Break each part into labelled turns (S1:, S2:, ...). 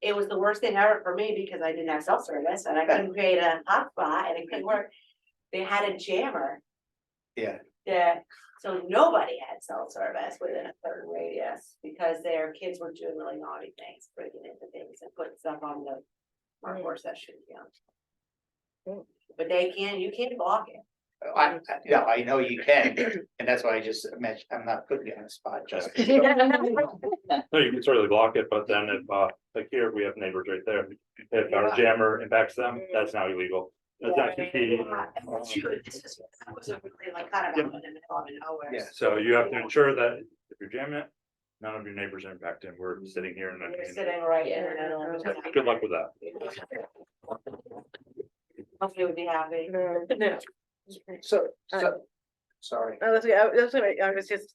S1: It was the worst thing ever for me because I didn't have cell service and I couldn't create a hotspot and it couldn't work. They had a jammer.
S2: Yeah.
S1: Yeah, so nobody had cell service within a certain radius because their kids were doing really naughty things, breaking into things and putting stuff on the. Workforce that shouldn't be on.
S3: Mm.
S1: But they can, you can't block it.
S3: Oh,
S2: I, I- yeah, I know you can, and that's why I just mentioned, I'm not putting you on the spot, just.
S4: No, you can certainly block it, but then if, uh, like here, we have neighbors right there. If
S1: Yeah. Mm-hmm.
S4: our jammer impacts them, that's now illegal. That's uh, not competing.
S1: Shoot, this is- that was a really like kind of out in the middle of nowhere.
S2: Yeah.
S4: So you have to ensure that if you're jamming it, none of your neighbors are impacted. We're sitting here and.
S1: You're sitting right in the middle of it.
S4: Good luck with that.
S1: Hopefully we'd be happy.
S3: No,
S2: So, so, sorry.
S3: no, that's, okay. I- that's, what I I was uh, just,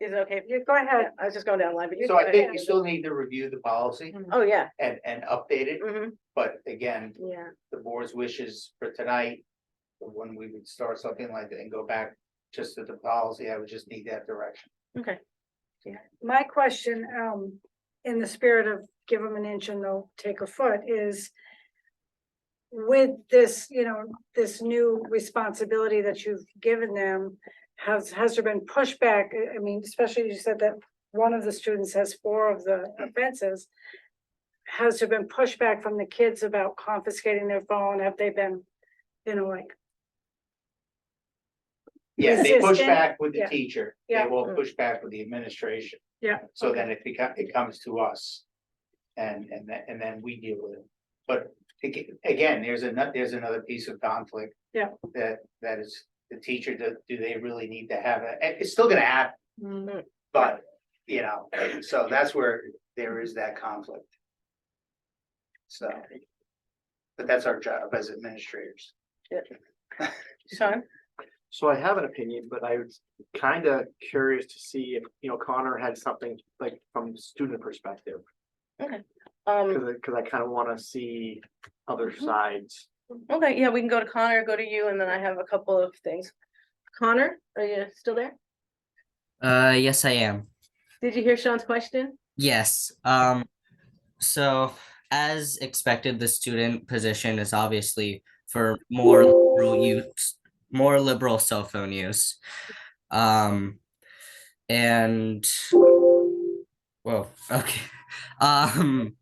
S3: is it okay? if you Go ahead. I was just going down the line, but you.
S2: So I
S3: go
S2: think
S3: ahead.
S2: you still need to review the policy
S3: Oh, yeah,
S2: and, and update it,
S3: hmm
S2: but again,
S3: yeah,
S2: the board's wishes for tonight. When we would start something like that and go back just to the policy, I would just need that direction.
S3: okay.
S5: My question, um, in the spirit of give them an inch and they'll take a foot is. With this, you know, this new responsibility that you've given them, has, has there been pushback? I- I mean, especially you said that one of the students has four of the offenses. Has there been pushback from the kids about confiscating their phone? Have they been, you know, like,
S2: Yeah, they push
S5: Consistent,
S2: back with the
S5: yeah.
S2: teacher, they
S5: Yeah.
S2: will push back with the administration.
S5: yeah?
S2: So then it becomes, it comes to us. And, and then, and then we deal with it. But aga- again, there's another, there's another piece of conflict.
S5: Yeah.
S2: That, that is the teacher, do, do they really need to have it? It's still gonna happen,
S5: Mhm.
S2: but, you know, so that's where there is that conflict. So. But that's our job as administrators.
S3: Sean?
S6: So I have an opinion, but I was kind of curious to see if, you know, Connor had something like from the student perspective.
S3: Um,
S6: Cause I, cause I kind of want to see other
S3: Mhm.
S6: sides.
S3: okay, yeah, we can go to Connor, go to you, and then I have a couple of things. Connor, are you still there?
S7: Uh, yes, I am.
S3: Did you hear Sean's question?
S7: Yes. Um, so as expected, the student position is obviously for more liberal use, more liberal cell phone use. Um, and whoa, okay. Um,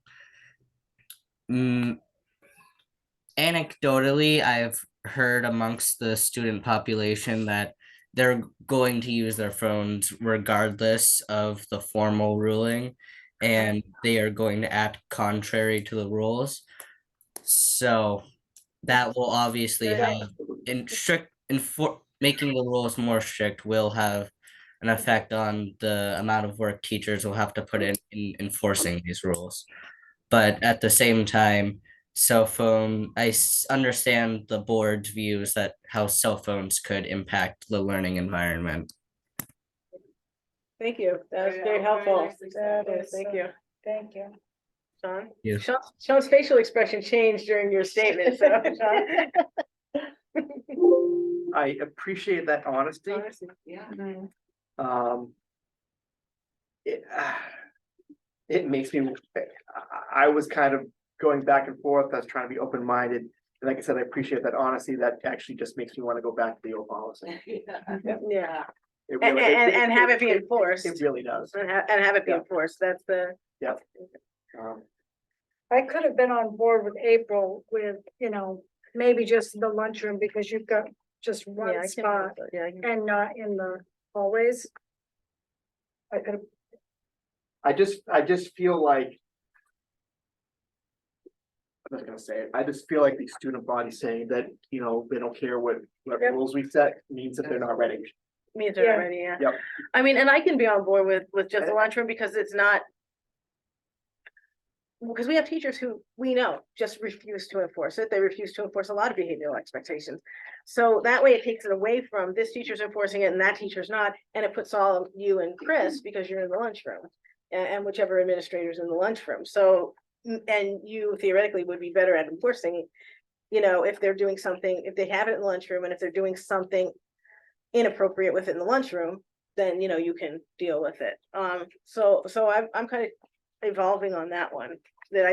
S7: mm, anecdotally, I've heard amongst the student population that they're going to use their phones regardless of the formal ruling and they are going to act contrary to the rules so that will obviously
S3: Yeah.
S7: have in strict enfor- making the rules more strict will have an effect on the amount of work teachers will have to put in in enforcing these rules but at the same time cell phone i s- understand the board's views that how cell phones could impact the learning environment
S3: Thank you. That was
S1: Very- very
S3: very helpful.
S1: nicely said.
S3: That is, thank you.
S5: Thank you.
S3: Sean?
S7: Yeah.
S3: Sean, Sean's facial expression changed during your statement, so. Sean.
S6: I appreciate that honesty.
S3: Honesty.
S1: Yeah.
S6: Um. It, ah, it makes me, I, I was kind of going back and forth. I was trying to be open-minded. And like I said, I appreciate that honesty. That actually just makes me want to go back to the old policy.
S3: Yeah,
S6: It
S3: and,
S6: really- it-
S3: and, and have it be enforced,
S6: It really does.
S3: and have, and have it be
S6: Yeah.
S3: enforced, that's the.
S6: Um,
S5: I could have been on board with April with, you know, maybe just the lunchroom because you've got just
S3: yeah, I
S5: one
S3: can-
S5: spot
S3: Yeah, I can-
S5: and not in the hallways. I could have,
S6: I just, I just feel like. I'm not gonna say it. I just feel like the student body saying that, you know, they don't care what, what
S3: Yep.
S6: rules we set means that they're not ready.
S3: me and
S5: Yeah.
S3: already, yeah.
S6: Yep.
S3: I mean, and I can be on board with, with just the lunchroom, because it's not. Because we have teachers who, we know, just refuse to enforce it, they refuse to enforce a lot of behavioral expectations. So that way it takes it away from this teacher's enforcing it and that teacher's not, and it puts all of you and Chris, because you're in the lunchroom. a- And, whichever administrator's in the lunchroom, so, mm, and you theoretically would be better at enforcing. You know, if they're doing something, if they have it in the lunchroom, and if they're doing something inappropriate within the lunchroom, then, you know, you can deal with it. Um, so, so I'm, I'm kind of evolving on that one.